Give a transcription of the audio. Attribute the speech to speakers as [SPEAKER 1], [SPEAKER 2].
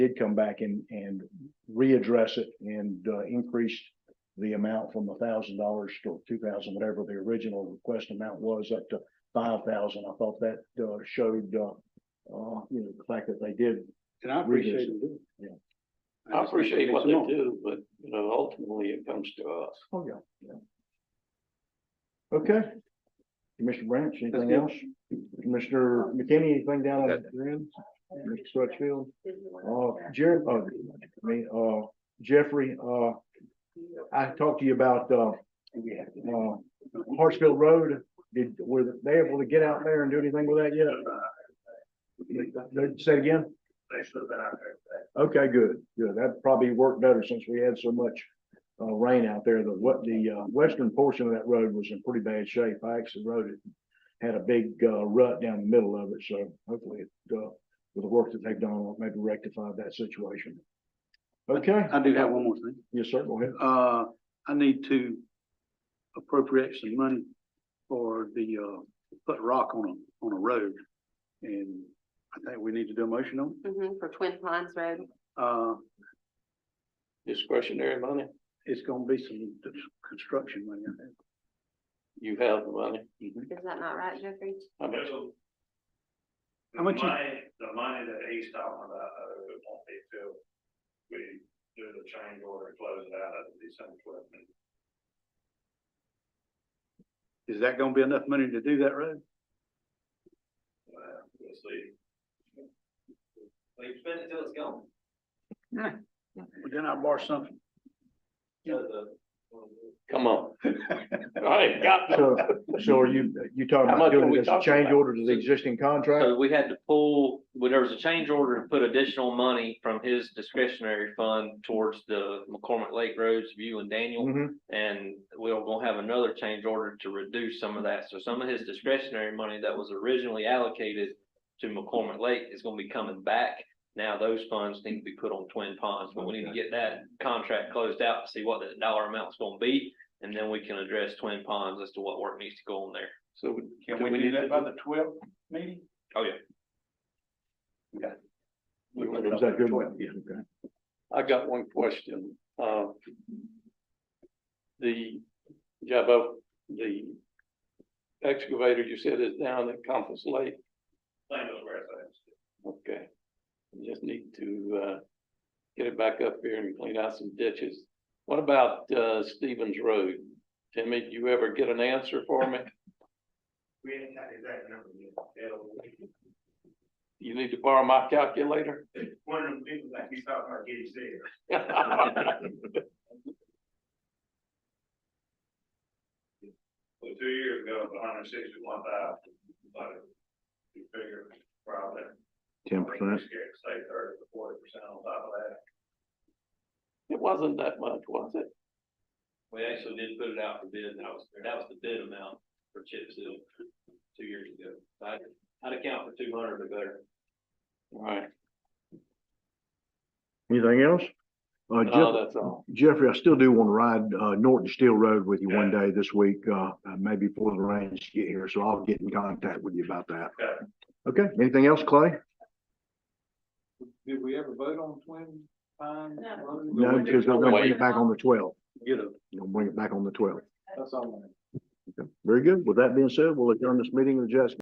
[SPEAKER 1] did come back and, and readdress it and uh, increased the amount from a thousand dollars to two thousand, whatever the original request amount was, up to five thousand. I thought that uh, showed, uh, uh, you know, the fact that they did.
[SPEAKER 2] And I
[SPEAKER 1] appreciate
[SPEAKER 2] appreciate
[SPEAKER 1] them
[SPEAKER 2] it.
[SPEAKER 1] it. Yeah.
[SPEAKER 3] I appreciate what they do, but you know, ultimately it comes to us.
[SPEAKER 1] Oh, yeah, yeah. Okay. Commissioner Branch, anything
[SPEAKER 2] good.
[SPEAKER 1] else? Commissioner McKinney, anything down on your end? Mr. Crutchfield? Uh, Jer, uh, I mean, uh, Jeffrey, uh, I talked to you about, uh, uh, Hartsfield Road. Did, were they able to get out there and do anything with that yet? Say it again? Okay, good, good. That probably worked better since we had so much uh rain out there. The what the uh western portion of that road was in pretty bad shape. I actually rode it. Had a big uh rut down the middle of it, so hopefully it uh with the work that they've done, maybe rectified that situation. Okay,
[SPEAKER 2] I do have one more thing.
[SPEAKER 1] yes, sir, go ahead.
[SPEAKER 2] Uh, I need to appropriate some money for the, uh, put rock on a, on a road. And I think we need to do a motion on, it.
[SPEAKER 4] Mhm, for Twin Pines Road.
[SPEAKER 2] uh,
[SPEAKER 3] Discretionary money,
[SPEAKER 2] it's gonna be some construction money. I think.
[SPEAKER 3] you have the money.
[SPEAKER 4] Is that not right, Jeffrey?
[SPEAKER 3] How much?
[SPEAKER 2] How much you-
[SPEAKER 5] Money, the money that he's talking about, uh, it won't be filled. We do the change order, and close it out at December twelfth.
[SPEAKER 2] Is that gonna be enough money to do that road?
[SPEAKER 5] Well, we'll see. Well, you spend it till it's gone.
[SPEAKER 2] Well, Then I borrow something.
[SPEAKER 3] Come on. I got the
[SPEAKER 1] So, so are you, you talking
[SPEAKER 3] How
[SPEAKER 1] about
[SPEAKER 3] much are
[SPEAKER 1] doing
[SPEAKER 3] we
[SPEAKER 1] it as a
[SPEAKER 3] talking
[SPEAKER 1] change
[SPEAKER 3] about?
[SPEAKER 1] order to the existing contract?
[SPEAKER 6] So we had to pull, well, there was a change order to put additional money from his discretionary fund towards the McCormick Lake Roads View and Daniel.
[SPEAKER 1] Mhm.
[SPEAKER 6] And we will gonna have another change order to reduce some of that. So some of his discretionary money that was originally allocated to McCormick Lake is gonna be coming back. Now those funds need to be put on Twin Ponds, but we need to get that contract closed out to see what the dollar amount's gonna be. And then we can address Twin Ponds as to what work needs to go on there.
[SPEAKER 3] So
[SPEAKER 2] Can we do that by the twelfth meeting?
[SPEAKER 6] Oh, yeah.
[SPEAKER 3] we went
[SPEAKER 1] Is
[SPEAKER 3] up
[SPEAKER 1] that
[SPEAKER 3] to
[SPEAKER 1] good?
[SPEAKER 3] twelve.
[SPEAKER 1] Yeah, okay.
[SPEAKER 3] I got one question. Uh, The job of the excavator you said is down at Compass Lake.
[SPEAKER 5] Same as where it's at.
[SPEAKER 3] Okay. We Just need to, uh, get it back up here and clean out some ditches. What about, uh, Stevens Road? Timmy, do you ever get an answer for me?
[SPEAKER 5] We ain't got exact number yet. It'll-
[SPEAKER 3] You need to borrow my calculator?
[SPEAKER 5] One of them people like he's talking about getting sick. Well, two years ago, it was hundred and sixty-one thousand, but you figure probably.
[SPEAKER 1] Ten percent.
[SPEAKER 5] Say thirty to forty percent on top of that.
[SPEAKER 3] It wasn't that much, was it?
[SPEAKER 6] We actually did put it out for bid, and that was, that was the bid amount for chip seal two years ago. So I, I'd account for two hundred or better.
[SPEAKER 3] All right,
[SPEAKER 1] Anything else? Uh,
[SPEAKER 3] no,
[SPEAKER 1] Jeff,
[SPEAKER 3] Oh, that's all.
[SPEAKER 1] Jeffrey, I still do want to ride uh, Norton Steel Road with you one day this week, uh, maybe before the rains get here, so I'll get in contact with you about that.
[SPEAKER 5] Okay.
[SPEAKER 1] Okay, anything else, Clay?
[SPEAKER 3] Did we ever vote on Twin Pines?
[SPEAKER 4] No.
[SPEAKER 1] No, because I'm gonna bring it back on the twelfth.
[SPEAKER 2] Get a,
[SPEAKER 1] You'll bring it back on the twelfth.
[SPEAKER 3] That's all.
[SPEAKER 1] Very good. With that being said, we'll adjourn this meeting with Jessica.